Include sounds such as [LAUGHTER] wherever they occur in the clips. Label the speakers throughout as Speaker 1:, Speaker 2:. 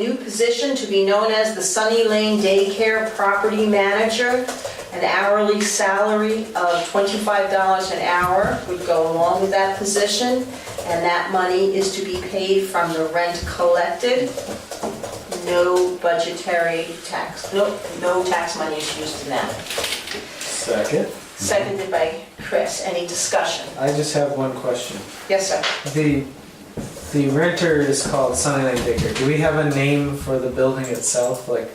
Speaker 1: New position to be known as the Sunny Lane Daycare Property Manager. An hourly salary of $25 an hour would go along with that position, and that money is to be paid from the rent collected. No budgetary tax, no, no tax money is used in that.
Speaker 2: Second.
Speaker 1: Seconded by Chris. Any discussion?
Speaker 2: I just have one question.
Speaker 1: Yes, sir.
Speaker 2: The, the renter is called Sunnyland Digger. Do we have a name for the building itself? Like,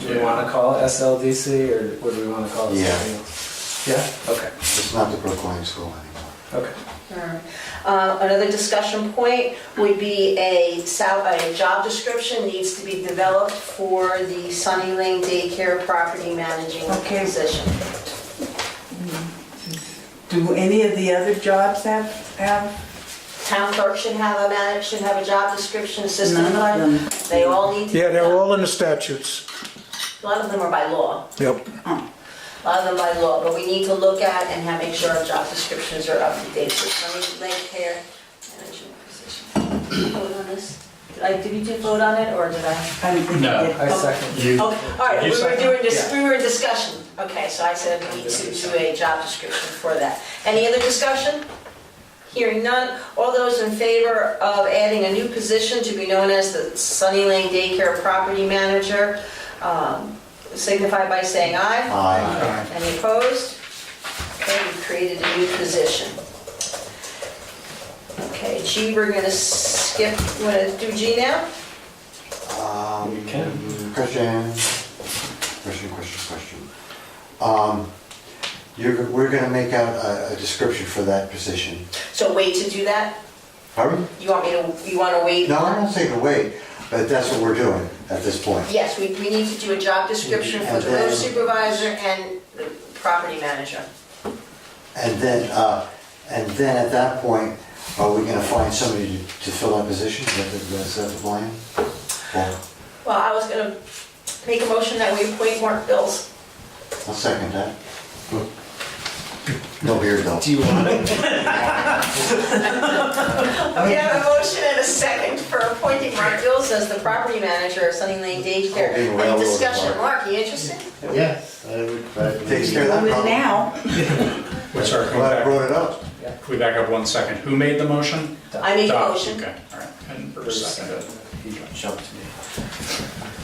Speaker 2: do we
Speaker 3: Yeah.
Speaker 2: want to call it SLDC or what do we want to call it?
Speaker 4: Yeah.
Speaker 2: something else? Yeah? Okay,
Speaker 4: It's not the Brookline School anymore.
Speaker 2: okay.
Speaker 1: Alright. Uh, Another discussion point would be a sal, a job description needs to be developed for the Sunny Lane Daycare Property Managing
Speaker 5: Okay.
Speaker 1: position.
Speaker 5: Do any of the other jobs have, have?
Speaker 1: Town clerk should have a man, should have a job description, assistant
Speaker 5: None of
Speaker 1: clerk, they all need to.
Speaker 6: Yeah, they're all in the statutes.
Speaker 1: A lot of them are by law,
Speaker 6: Yep.
Speaker 1: a lot of them by law, but we need to look at and have, make sure our job descriptions are up to date for Sunny Lane Care Management position. Vote on this? Did I, did we do vote on it, or did I?
Speaker 5: I don't think
Speaker 3: No.
Speaker 5: they
Speaker 2: I
Speaker 5: did.
Speaker 2: second.
Speaker 3: You,
Speaker 1: Oh, all right, we
Speaker 3: You
Speaker 1: were
Speaker 3: second?
Speaker 1: doing, dis-
Speaker 2: Yeah.
Speaker 1: we were in discussion. Okay, so I said we need to do a job description for that. Any other discussion? Hearing none. All those in favor of adding a new position to be known as the Sunny Lane Daycare Property Manager, um, signify by saying aye.
Speaker 4: Aye.
Speaker 1: Any opposed? Okay, we created a new position. Okay, G, we're gonna skip, wanna do G now?
Speaker 4: Um,
Speaker 2: You can.
Speaker 4: Question, question, question, question. Um, You're, we're gonna make out a, a description for that position.
Speaker 1: So wait to do that?
Speaker 4: Pardon?
Speaker 1: You want me to, you wanna wait?
Speaker 4: No, I'm not saying to wait, but that's what we're doing at this point.
Speaker 1: Yes, we, we need to do a job description for the road supervisor and the property manager.
Speaker 4: And then, uh, and then at that point, are we gonna find somebody to to fill that position? Is that the- Is that the plan? Well,
Speaker 1: Well, I was gonna make a motion that we appoint Mark Bills.
Speaker 4: I'll second that. No beard though.
Speaker 2: Do you want [LAUGHS] it?
Speaker 1: We have a motion and a second for appointing Mark Bills as the property manager of Sunny Lane Daycare.
Speaker 4: Oh, being
Speaker 1: Any
Speaker 4: railroaded,
Speaker 1: discussion,
Speaker 4: Mark.
Speaker 1: Mark, you interested?
Speaker 7: Yes, I would. I would-
Speaker 4: Takes care of that
Speaker 5: Well,
Speaker 4: problem.
Speaker 5: now,
Speaker 3: what's our, can we
Speaker 4: Glad I
Speaker 3: back-
Speaker 4: brought it up.
Speaker 3: can we back up one second? Who made the motion?
Speaker 1: I made a
Speaker 3: Doc,
Speaker 1: motion.
Speaker 3: Okay, all right. And Bruce seconded.
Speaker 2: He jumped me.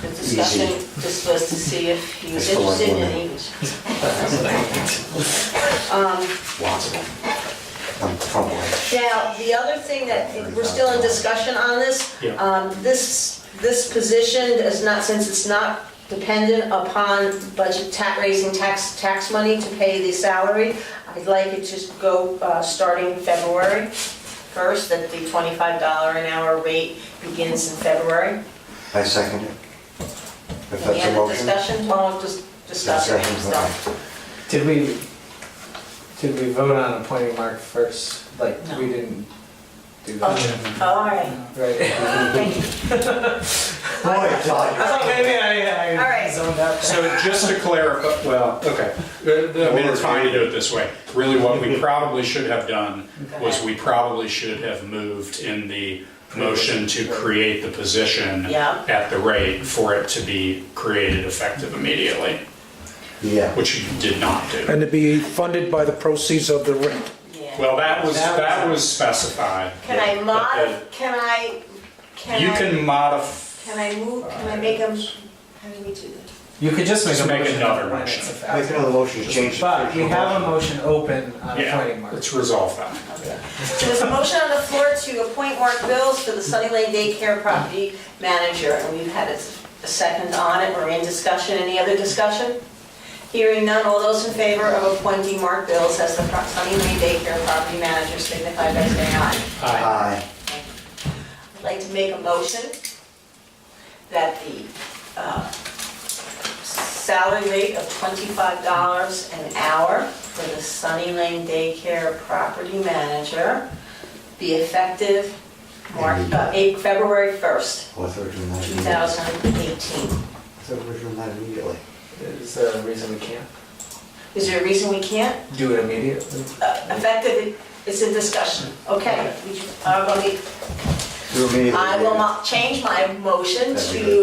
Speaker 1: The discussion just was to see if he was
Speaker 4: It's for
Speaker 1: interested
Speaker 4: one
Speaker 1: and
Speaker 4: woman.
Speaker 1: he was. Um,
Speaker 4: Lots of them. I'm fumbling.
Speaker 1: Now, the other thing that, we're still in discussion on this.
Speaker 3: Yeah.
Speaker 1: Um, This, this position is not, since it's not dependent upon budget, ta- raising tax, tax money to pay the salary, I'd like it to go, uh, starting February 1st, that the $25 an hour rate begins in February.
Speaker 4: I second it. If
Speaker 1: Any
Speaker 4: that's a
Speaker 1: other
Speaker 4: motion.
Speaker 1: discussion, Tom, just discussing
Speaker 4: Second,
Speaker 1: and stuff.
Speaker 2: Did we, did we vote on appointing Mark first? Like, we didn't do that,
Speaker 1: Oh, All right,
Speaker 2: right?
Speaker 1: [LAUGHS] thank
Speaker 2: [LAUGHS]
Speaker 1: you.
Speaker 4: Boy, Todd,
Speaker 2: I thought maybe
Speaker 1: All
Speaker 2: I,
Speaker 1: right.
Speaker 2: I zoned out.
Speaker 3: So just to clarify, well, okay, I mean, it's fine to do it this way. Really, what
Speaker 4: [LAUGHS]
Speaker 3: we probably should have done was we probably should have moved in the motion to create the position
Speaker 1: Yeah.
Speaker 3: at the rate for it to be created effective immediately,
Speaker 4: Yeah.
Speaker 3: which you did not do.
Speaker 6: And to be funded by the proceeds of the rent.
Speaker 1: Yeah.
Speaker 3: Well, that was,
Speaker 2: That was-
Speaker 3: that was specified.
Speaker 1: Can I
Speaker 3: but the-
Speaker 1: mod, can I, can I?
Speaker 3: You can modify,
Speaker 1: Can I move, can I make them, how do we do that?
Speaker 2: You could just make a
Speaker 3: Just make
Speaker 2: motion.
Speaker 3: another
Speaker 2: when
Speaker 3: motion.
Speaker 2: it's effective.
Speaker 4: Make another motion to change. the
Speaker 2: But we
Speaker 4: original
Speaker 2: have a
Speaker 4: motion.
Speaker 2: motion open on
Speaker 3: yeah,
Speaker 2: appointing Mark.
Speaker 3: let's resolve that.
Speaker 1: So there's a motion on the floor to appoint Mark Bills to the Sunny Lane Daycare Property Manager, and we've had a s- a second on it, we're in discussion, any other discussion? Hearing none, all those in favor of appointing Mark Bills as the pro- Sunny Lane Daycare Property Manager signify by saying aye.
Speaker 4: Aye.
Speaker 1: I'd like to make a motion that the uh, salary rate of $25 an hour for the Sunny Lane Daycare property manager be effective March, uh, eight- February 1st,
Speaker 4: What's the original motion?
Speaker 1: 2018.
Speaker 4: What's the original motion immediately?
Speaker 2: Is there a reason we can't
Speaker 1: Is there a reason we can't?
Speaker 2: do it immediately?
Speaker 1: Uh, Effective, it's a discussion, okay? we- uh, let me-
Speaker 8: Do a meeting.
Speaker 4: I will mo- change my motion
Speaker 1: That'd be
Speaker 4: to
Speaker 1: good.